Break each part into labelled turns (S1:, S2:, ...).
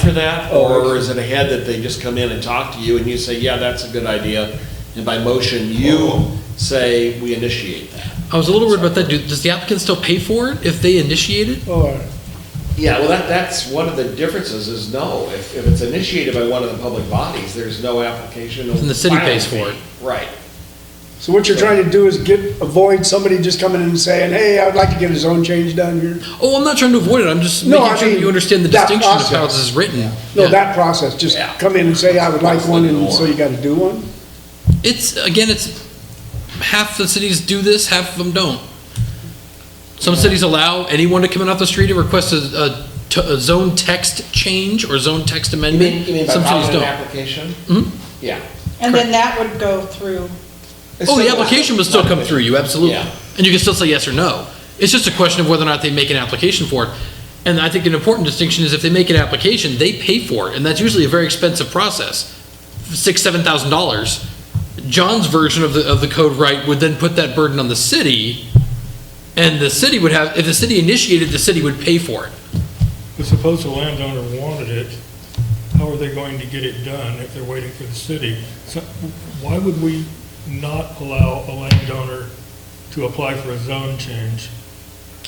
S1: after that? Or is it ahead that they just come in and talk to you and you say, yeah, that's a good idea? And by motion, you say, we initiate that.
S2: I was a little worried about that. Do- Does the applicant still pay for it if they initiate it?
S3: Or,
S1: Yeah, well, that, that's one of the differences is no, if, if it's initiated by one of the public bodies, there's no application. of
S2: And the city pays
S1: filing
S2: for
S1: fee. Right.
S3: so what you're trying to do is get, avoid somebody just coming in and saying, hey, I'd like to get a zone change done here.
S2: Oh, I'm not trying to avoid it. I'm just
S3: No,
S2: making
S3: I
S2: sure that
S3: mean,
S2: you understand the
S3: that
S2: distinction of how
S3: process.
S2: this is written.
S3: No,
S2: Yeah.
S3: that process, just
S1: Yeah.
S3: come in and say, I would like one, and so you gotta do one?
S2: It's, again, it's, half the cities do this, half of them don't. Some cities allow anyone to come in off the street and request a, a t- a zone text change or zone text
S1: You mean,
S2: amendment.
S1: you mean by
S2: Some cities
S1: filing an
S2: don't.
S1: application?
S2: Mhm.
S1: Yeah.
S4: And then that would go through,
S1: It's
S2: Oh, the
S1: still-
S2: application would still come through you, absolutely.
S1: Yeah.
S2: And you can still say yes or no. It's just a question of whether or not they make an application for it. And I think an important distinction is if they make an application, they pay for it, and that's usually a very expensive process, six, seven thousand dollars. John's version of the, of the code right would then put that burden on the city, and the city would have, if the city initiated, the city would pay for it.
S5: But suppose the landowner wanted it, how are they going to get it done if they're waiting for the city? So why would we not allow a landowner to apply for a zone change?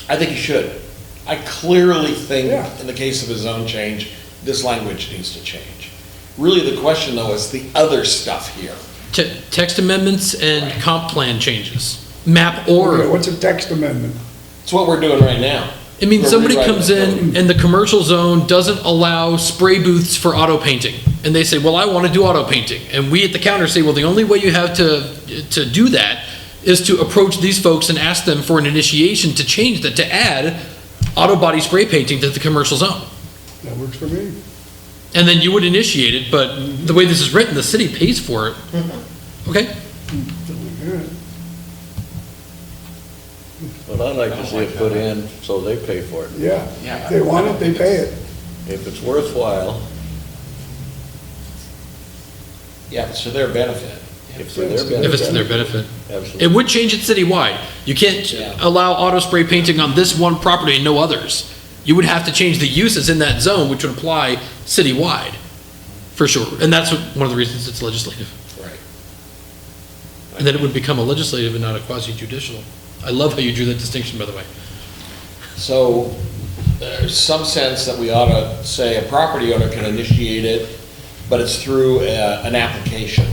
S1: I think you should. I clearly think,
S3: Yeah.
S1: in the case of a zone change, this language needs to change. Really, the question though is the other stuff here.
S2: Te- Text amendments and comp plan changes, map or.
S3: Okay, What's a text amendment?
S1: It's what we're doing right now.
S2: I mean,
S1: We're
S2: somebody
S1: rewriting
S2: comes
S1: the
S2: in and the commercial zone doesn't allow spray booths for auto painting. And they say, well, I want to do auto painting. And we at the counter say, well, the only way you have to, to do that is to approach these folks and ask them for an initiation to change that, to add auto body spray painting to the commercial zone.
S3: That works for me.
S2: And then you would initiate it, but the way this is written, the city pays for it. Okay?
S3: Alright.
S6: But I'd like to see it put in so they pay for it.
S3: Yeah,
S1: Yeah.
S3: if they want it, they pay it.
S6: If it's worthwhile,
S1: Yeah, it's to their benefit.
S6: if it's for their benefit.
S2: If it's to their benefit. It
S6: Absolutely.
S2: would change it citywide. You can't
S1: Yeah.
S2: allow auto spray painting on this one property and no others. You would have to change the uses in that zone, which would apply citywide, for sure. And that's what, one of the reasons it's legislative.
S1: Right.
S2: And then it would become a legislative and not a quasi judicial. I love how you drew that distinction, by the way.
S1: So there's some sense that we ought to say a property owner can initiate it, but it's through uh, an application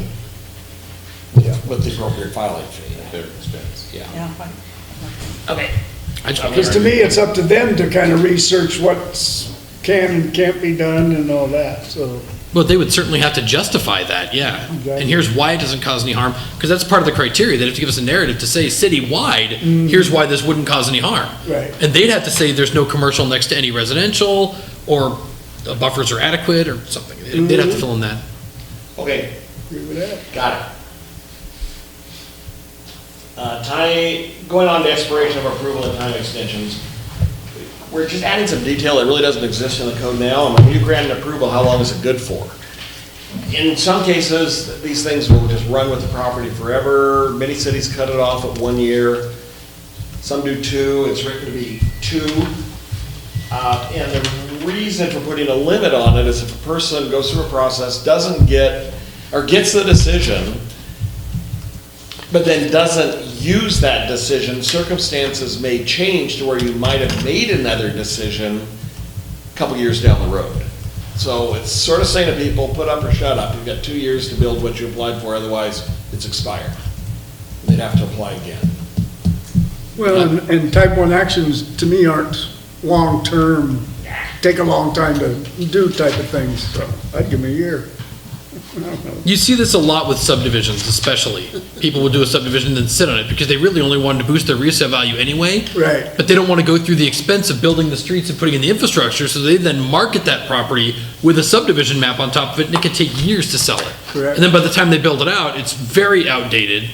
S1: with the appropriate filing fee. At their expense. Yeah.
S4: yeah.
S2: I just-
S3: Because to me, it's up to them to kind of research what's can and can't be done and all that, so.
S2: Well, they would certainly have to justify that, yeah.
S3: Exactly.
S2: And here's why it doesn't cause any harm, because that's part of the criteria. They'd have to give us a narrative to say citywide, here's why this wouldn't cause any harm.
S3: Right.
S2: And they'd have to say there's no commercial next to any residential, or the buffers are adequate, or something. They'd they'd
S4: Mm-hmm.
S2: have to fill in that.
S1: Okay,
S3: Agree with that.
S1: got it. Uh, Time, going on to expiration of approval and time extensions. We're just adding some detail that really doesn't exist in the code now, and when you grant an approval, how long is it good for? In some cases, these things will just run with the property forever. Many cities cut it off at one year. Some do two, it's written to be two. Uh, And the reason for putting a limit on it is if a person goes through a process, doesn't get, or gets the decision, but then doesn't use that decision, circumstances may change to where you might have made another decision a couple years down the road. So it's sort of saying to people, put up or shut up. You've got two years to build what you applied for, otherwise it's expired. They'd have to apply again.
S3: Well, and- and type one actions, to me, aren't long-term, take a long time to do type of things, so I'd give them a year.
S2: You see this a lot with subdivisions, especially. People will do a subdivision and then sit on it, because they really only wanted to boost their resale value anyway.
S3: Right.
S2: But they don't want to go through the expense of building the streets and putting in the infrastructure, so they then market that property with a subdivision map on top of it, and it could take years to sell it.
S3: Correct.
S2: And then by the time they build it out, it's very outdated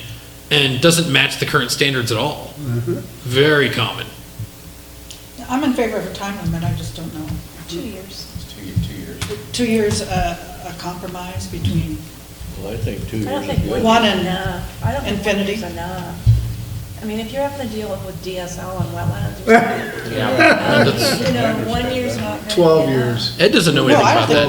S2: and doesn't match the current standards at all.
S4: Mm-hmm.
S2: Very common.
S4: I'm in favor of a time limit, I just don't know. Two years. Two, years. Two years, uh, a compromise between,
S6: Well, I think two
S7: I don't
S6: years
S7: think
S6: is
S7: one
S6: good.
S4: One
S7: is
S4: and
S7: enough. I don't think one
S4: infinity.
S7: is enough. I mean, if you're having to deal with DSL on wetlands, or
S2: And
S7: something,
S2: that's-
S7: you know, one year's not. gonna be
S3: Twelve
S7: enough.
S3: years.
S2: Ed doesn't know
S4: No,
S2: anything
S4: I don't
S2: about
S4: think
S2: that.